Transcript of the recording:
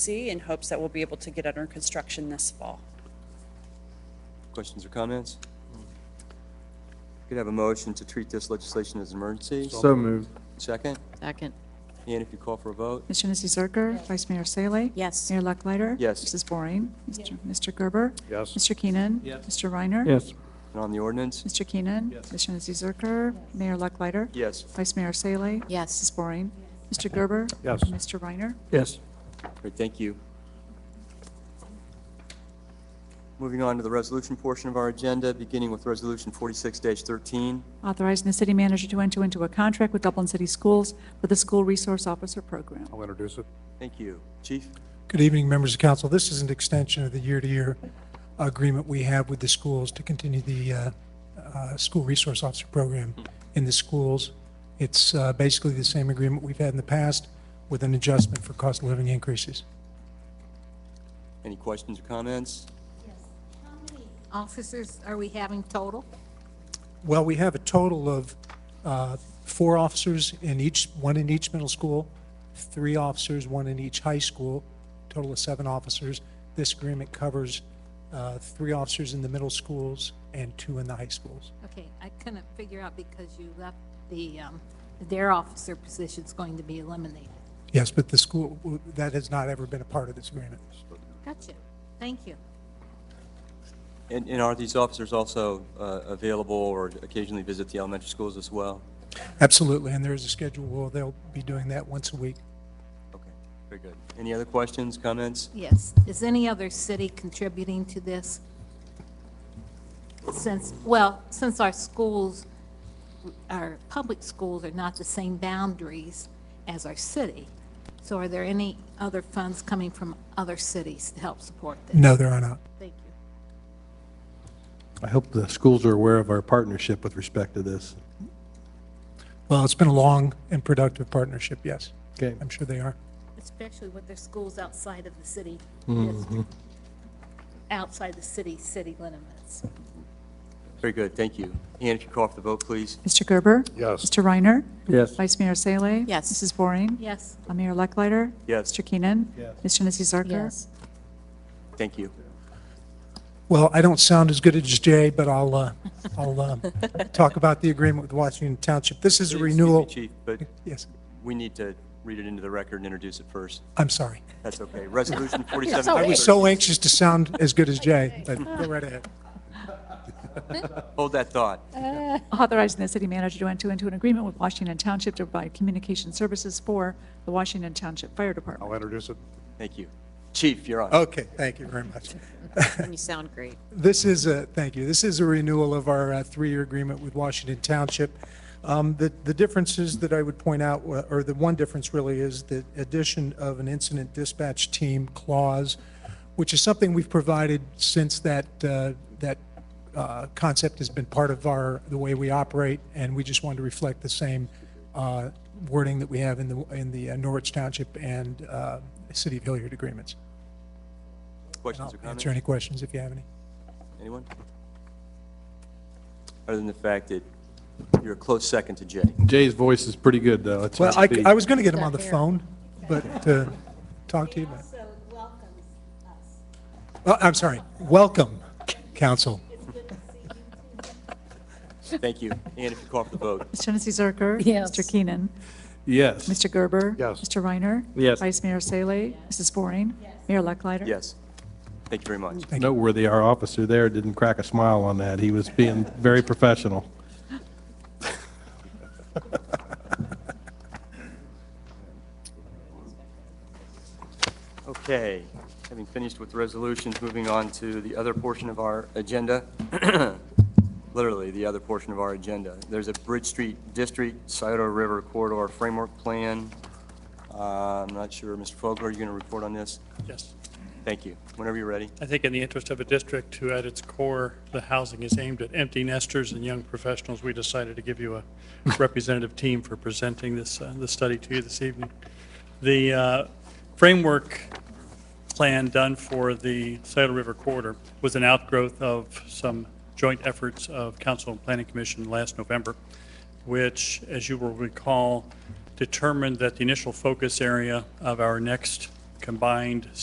see in hopes that we'll be able to get under construction this fall. Questions or comments? Could I have a motion to treat this legislation as an emergency. So moved. Second, Second. and if you call for a vote, Ms. Janice Zerker, Vice Mayor Salee. Yes. Mayor Lucklider. Yes. Mrs. Waring. Mr. Mr. Gerber. Yes. Mr. Keenan. Yes. Mr. Reiner. Yes. and on the ordinance? Mr. Keenan. Yes. Ms. Janice Zerker. Mayor Lucklider. Yes. Vice Mayor Salee. Yes. Mrs. Waring. Mr. Gerber. Yes. And Mr. Reiner. Yes. Great, thank you. Moving on to the resolution portion of our agenda, beginning with Resolution 46-13. Authorizing the city manager to enter into a contract with Dublin City Schools for the School Resource Officer Program. I'll introduce it. Thank you. Chief? Good evening, members of council. This is an extension of the year-to-year agreement we have with the schools to continue the uh, uh, School Resource Officer Program in the schools. It's uh, basically the same agreement we've had in the past with an adjustment for cost of living increases. Any questions or comments? How many Officers are we having total? Well, we have a total of uh, four officers in each, one in each middle school, three officers, one in each high school, total of seven officers. This agreement covers uh, three officers in the middle schools and two in the high schools. Okay, I couldn't figure out because you left the, um, their officer position's going to be eliminated. Yes, but the school, that has not ever been a part of this agreement. Gotcha. Thank you. And and are these officers also uh, available or occasionally visit the elementary schools as well? Absolutely, and there is a schedule, where they'll be doing that once a week. Okay, very good. Any other questions, comments? Yes. Is any other city contributing to this? Since, well, since our schools, our public schools are not the same boundaries as our city, so are there any other funds coming from other cities to help support this? No, there are not. Thank you. I hope the schools are aware of our partnership with respect to this. Well, it's been a long and productive partnership, yes. Okay. I'm sure they are. especially with their schools outside of the city district, outside the city, city limits. Very good, thank you. And if you call for the vote, please. Mr. Gerber. Yes. Mr. Reiner. Yes. Vice Mayor Salee. Yes. Mrs. Waring. Yes, Uh, Mayor Lucklider. Yes. Mr. Keenan. Yes. Ms. Janice Zerker. Yes. Thank you. Well, I don't sound as good as Jay, but I'll, uh, I'll um, talk about the agreement with Washington Township. This is a Excuse me, renewal. Chief, but Yes, we need to read it into the record and introduce it first. I'm sorry. That's okay. Resolution 47. I was so anxious to sound as good as Jay, but go right ahead. Hold that thought. Authorizing the city manager to enter into an agreement with Washington Township to provide communication services for the Washington Township Fire Department. I'll introduce it. Thank you. Chief, you're on. Okay, thank you very much. You sound great. This is a, thank you, this is a renewal of our uh, three-year agreement with Washington Township. Um, The the differences that I would point out, wa- or the one difference really, is the addition of an incident dispatch team clause, which is something we've provided since that, uh, that uh, concept has been part of our, the way we operate, and we just wanted to reflect the same uh, wording that we have in the, in the uh, Norwich Township and uh, City of Hilliard agreements. And Questions I'll or comments? answer any questions if you have any. Anyone? Other than the fact that you're a close second to Jay. Jay's voice is pretty good, though. It's Well, I, upbeat. I was going to get him on the phone, but uh talk to you about. so welcomes us. Oh, I'm sorry. Welcome, council. Thank you. And if you call for the vote, Ms. Janice Zerker. Yes. Mr. Keenan. Yes. Mr. Gerber. Yes. Mr. Reiner. Yes. Vice Mayor Salee. Mrs. Waring. Mayor Lucklider. yes. Thank you very much. Noteworthy, our officer there didn't crack a smile on that. He was being very professional. Okay, having finished with resolutions, moving on to the other portion of our agenda, literally the other portion of our agenda. There's a Bridge Street District Scioto River Corridor Framework Plan. Uh, I'm not sure, Mr. Fogler, are you going to report on this? Yes. Thank you. Whenever you're ready. I think in the interest of a district who at its core, the housing is aimed at empty nesters and young professionals, we decided to give you a representative team for presenting this, uh, this study to you this evening. The uh, framework plan done for the Saddle River corridor was an outgrowth of some joint efforts of Council and Planning Commission last November, which, as you will recall, determined that the initial focus area of our next combined